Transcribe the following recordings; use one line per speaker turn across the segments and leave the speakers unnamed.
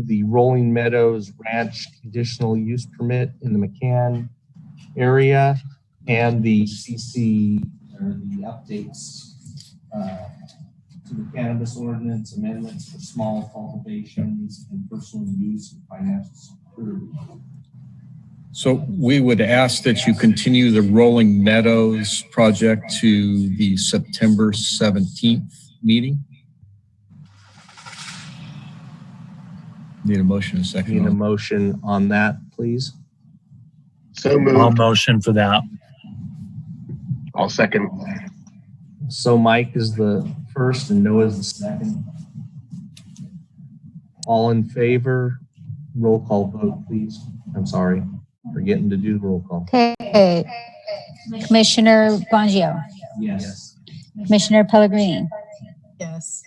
the Rolling Meadows Ranch conditional use permit in the McCann area and the CC, or the updates uh, to the cannabis ordinance amendments for small cultivations and personal use and financial security.
So we would ask that you continue the Rolling Meadows project to the September 17th meeting. Need a motion and a
Need a
second.
motion on that, please?
So
I'll
moved.
motion for that.
I'll second.
So Mike is the first and Noah is the second. All in favor? Roll call vote, please. I'm sorry, forgetting to do the roll call.
Okay. Commissioner Bongio,
Yes.
Commissioner Pellegrini,
Yes.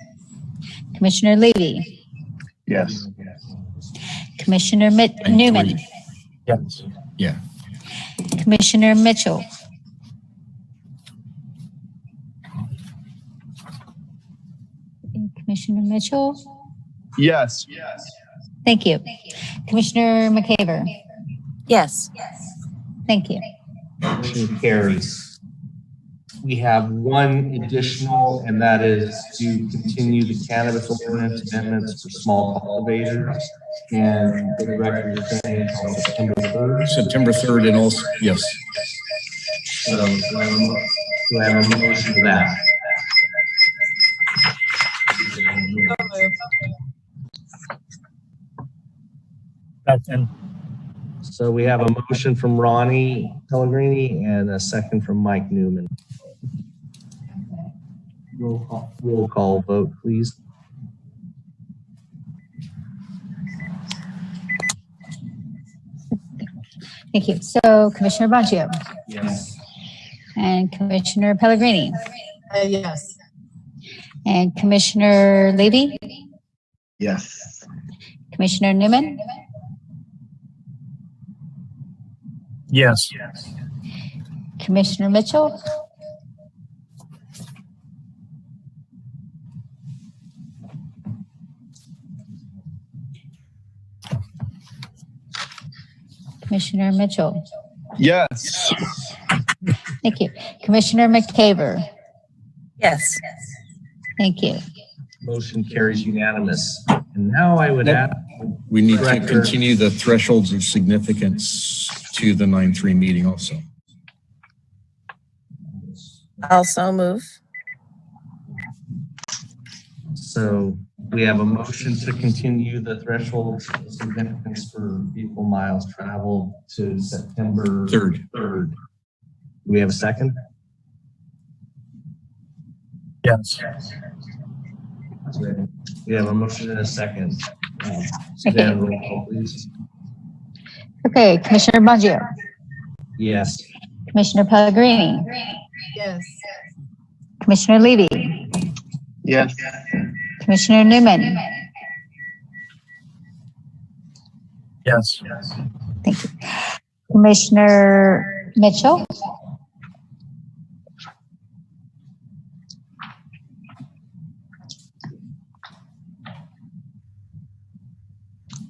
Commissioner Levy,
Yes.
Commissioner Mit-
And three.
Newman,
Yes.
Commissioner Mitchell. Commissioner Mitchell,
Yes.
thank you. Commissioner McCaver,
Yes.
thank you.
Motion carries. We have one additional, and that is to continue the cannabis ordinance amendments for small cultivators. And the record is saying on September third.
September 3rd and also, yes,
So do I have a mo- do I have a motion to that?
Second.
So we have a motion from Ronnie Pellegrini and a second from Mike Newman. Roll call. Roll call vote, please.
Thank you. So Commissioner Bongio
Yes.
and Commissioner Pellegrini
Uh, yes.
and Commissioner Levy,
Yes.
Commissioner Newman,
Yes.
Commissioner Mitchell, Commissioner Mitchell.
Yes.
Thank you. Commissioner McCaver.
Yes.
Thank you.
Motion carries unanimous. And now I would add,
we need to
Director.
continue the thresholds of significance to the 9-3 meeting also.
Also move.
so we have a motion to continue the threshold of significance for vehicle miles traveled to September.
3rd.
Third. Do we have a second?
Yes.
We have a motion and a second. Um, Suzanne, roll call, please.
Okay, Commissioner Bongio,
Yes.
Commissioner Pellegrini,
Yes.
Commissioner Levy,
Yes.
Commissioner Newman.
Yes.
Thank you. Commissioner Mitchell,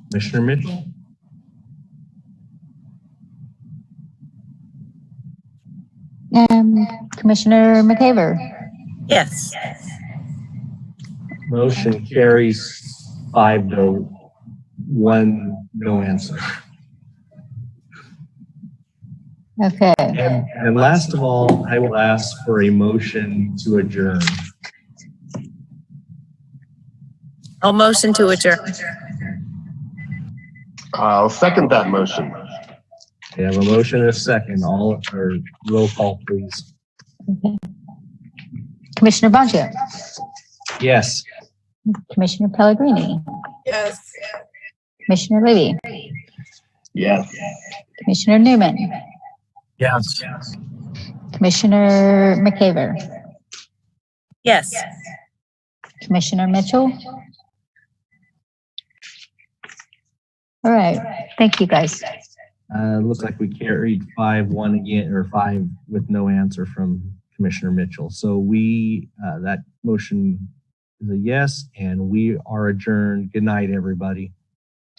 Commissioner Mitchell?
um, Commissioner McCaver.
Yes.
Motion carries five to one, no answer.
Okay,
And, and last of all, I will ask for a motion to adjourn.
I'll motion to adjourn.
I'll second that motion.
We have a motion and a second, all, or roll call, please.
Commissioner Bongio,
Yes.
Commissioner Pellegrini,
Yes.
Commissioner Levy,
Yes.
Commissioner Newman,
Yes.
Commissioner McCaver,
Yes.
Commissioner Mitchell. All right, thank you, guys.
Uh, looks like we carried five, one again, or five with no answer from Commissioner Mitchell. So we, uh, that motion is a yes, and we are adjourned. Good night, everybody.